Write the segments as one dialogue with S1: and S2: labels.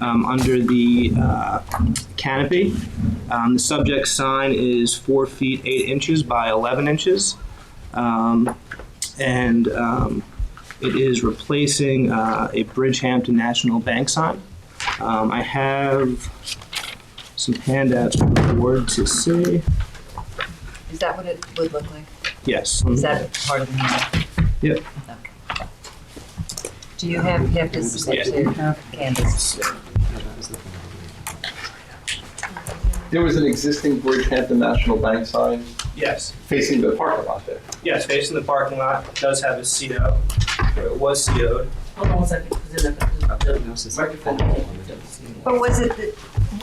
S1: um, under the uh, canopy. Um, the subject sign is four feet eight inches by 11 inches. Um, and um, it is replacing uh, a Bridgehampton National Bank sign. Um, I have some handouts for the board to see.
S2: Is that what it would look like?
S1: Yes.
S2: Is that part of the music?
S1: Yep.
S2: Okay. Do you have, you have to submit to Candace?
S3: There was an existing Bridgehampton National Bank sign
S1: Yes.
S3: facing the parking lot there.
S1: Yes, facing the parking lot, it does have a CO, or it was CO'd.
S4: Hold on one second, because then I- Microphone.
S2: But was it, the-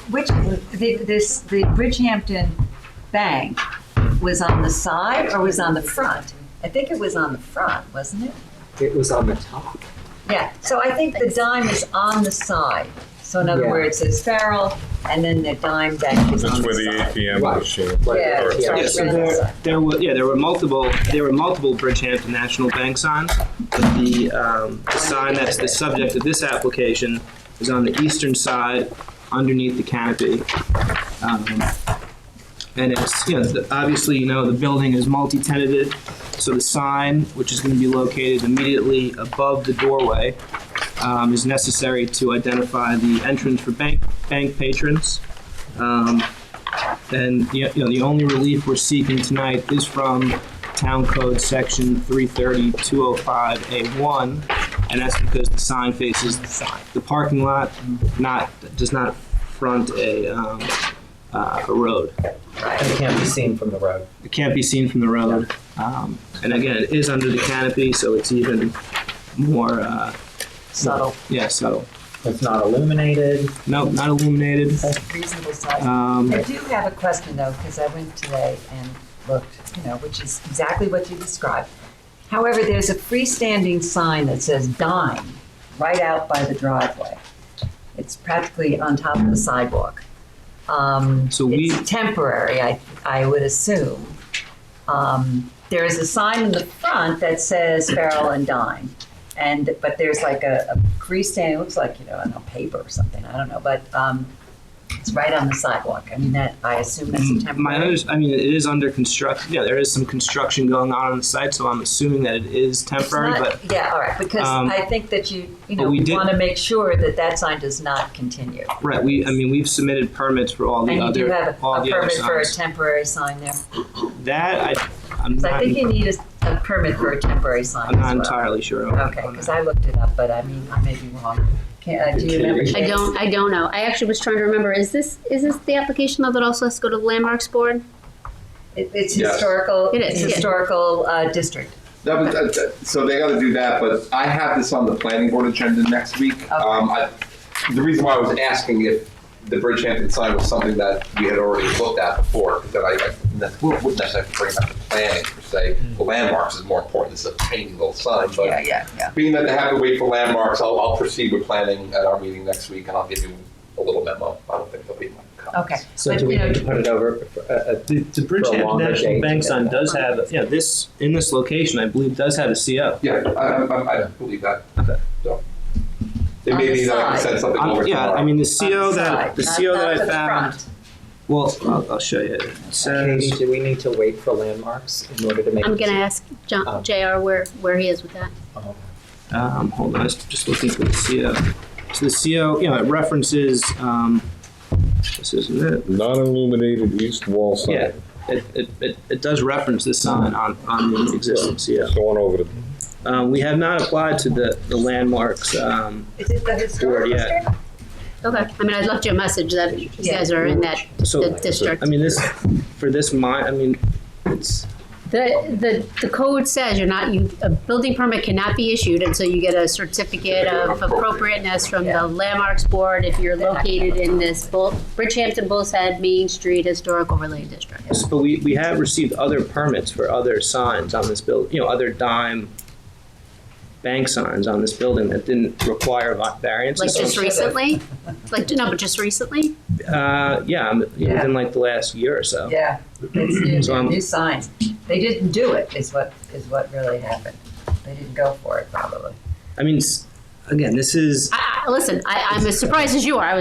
S2: which, the, this, the Bridgehampton Bank was on the side or was on the front? I think it was on the front, wasn't it?
S5: It was on the top.
S2: Yeah, so I think the dime is on the side. So in other
S5: Yeah.
S2: words, it's Farrell, and then the dime bank is
S6: That's
S2: on
S6: where
S2: the
S6: the
S2: side.
S6: ATM
S5: Right.
S6: machine.
S2: Yeah,
S6: or-
S2: it's
S5: Yeah.
S2: right
S1: Yeah, so
S2: around the
S1: there,
S2: side.
S1: there were, yeah, there were multiple, there were multiple Bridgehampton National Bank signs, but the, um, the sign that's the subject of this application is on the eastern side underneath the canopy. Um, And it's, you know, the- obviously, you know, the building is multi-tenanted, so the sign, which is gonna be located immediately above the doorway, um, is necessary to identify the entrance for bank, bank patrons. Um, and, you know, the only relief we're seeking tonight is from Town Code Section 330-205A1, and that's because the sign faces the parking lot, not, does not front a, um, uh, a road.
S5: And it can't be seen from the road.
S1: It can't be seen from the road. Um, And again, it is under the canopy, so it's even more, uh,
S2: Subtle,
S1: yeah, subtle.
S5: It's not illuminated.
S1: No, not illuminated.
S2: reasonable size.
S1: Um,
S2: I do have a question though, because I went today and looked, you know, which is exactly what you described. However, there's a freestanding sign that says dine right out by the driveway. It's practically on top of the sidewalk. Um,
S1: So we-
S2: It's temporary, I, I would assume. Um, There is a sign in the front that says Farrell and Dine. And, but there's like a a freestanding, it looks like, you know, I don't know, paper or something, I don't know, but um, it's right on the sidewalk. I mean, that, I assume that's a
S1: Mm, My
S2: temporary.
S1: others, I mean, it is under construction, yeah, there is some construction going on on the site, so I'm assuming that it is
S2: It's
S1: temporary,
S2: not-
S1: but,
S2: Yeah, all right, because
S1: um,
S2: I think that you, you
S1: but
S2: know,
S1: we did-
S2: want to make sure that that sign does not continue.
S1: right, we, I mean, we've submitted permits for all the
S2: And you do
S1: other,
S2: have a
S1: all
S2: a
S1: the other
S2: permit for a
S1: signs.
S2: temporary sign there.
S1: That, I, I'm
S2: 'Cause I
S1: not,
S2: think you need a, a permit for a temporary sign
S1: I'm not
S2: as well.
S1: entirely sure. on-
S2: Okay,
S1: on
S2: because
S1: that.
S2: I looked it up, but I mean, I may be wrong. Can, uh, do you remember?
S7: I don't. I don't know. I actually was trying to remember. Is this is this the application though that also has to go to the landmarks board?
S2: It, it's
S3: Yes.
S2: historical,
S7: It
S2: it's
S7: is, yeah.
S2: historical, uh, district.
S3: That was, that- that- so they gotta do that, but I have this on the planning board agenda next week. Um, I, the reason why I was asking if the Bridgehampton sign was something that we had already looked at before, because then I, I ne- wouldn't necessarily bring up the planning per se. The landmarks is more important, it's a tiny little sign, but
S2: yeah, yeah.
S3: being that they have to wait for landmarks, I'll, I'll proceed with planning at our meeting next week, and I'll give you a little memo. I don't think there'll be much comments.
S2: Okay.
S5: So
S2: But,
S5: do we
S2: you know,
S5: need to put it over? for- uh, uh,
S1: The, the Bridgehampton
S5: longer
S1: National
S5: date
S1: Bank
S5: to get
S1: sign
S5: that.
S1: does have, yeah, this, in this location, I believe, does have a CO.
S3: Yeah, I, I- I, I believe that. So They
S2: On the
S3: may need to
S2: side.
S3: send something
S1: Um,
S3: over
S1: Yeah, I
S3: tomorrow.
S1: mean, the
S2: On
S1: CO that,
S2: side,
S1: the
S2: not-
S1: CO
S2: not
S1: that
S2: for
S1: I
S2: the
S1: found,
S2: front.
S1: well, I'll, I'll show you. It
S5: Katie,
S1: says,
S5: do we need to wait for landmarks in order to make?
S7: I'm
S5: it-
S7: gonna ask
S5: Um,
S7: John, Jr. where where he is with that.
S5: Oh,
S1: um, hold on, I was just looking for the CO. So the CO, you know, it references, um, this isn't it.
S6: Not illuminated east wall
S1: Yeah,
S6: sign.
S1: it, it, it, it does reference the sign on, on the existing CO.
S6: It's going over the
S1: Um, we have not applied to the, the landmarks, um,
S2: Is it the historical
S1: Board, yeah.
S2: district?
S7: Okay. I mean, I left you a message that you
S2: Yeah.
S7: guys are in that the
S1: so,
S7: district.
S1: I mean, this, for this mine, I mean, it's,
S7: The, the, the code says you're not, you, a building permit cannot be issued until you get a certificate of appropriateness from the landmarks board if you're located in this Bull, Bridgehampton Bulls Head Main Street Historical Overlay District.
S1: But we, we have received other permits for other signs on this building, you know, other dime bank signs on this building that didn't require va-
S7: Like
S1: variances.
S7: just
S1: So,
S7: recently? Like, no, but just recently?
S1: Uh, yeah, um, within like the last year or so.
S2: Yeah, it's
S1: So
S2: new,
S1: I'm-
S2: new signs. They didn't do it, is what, is what really happened. They didn't go for it, probably.
S1: I mean, s- again, this is,
S7: I, listen, I, I'm as surprised as you are. I was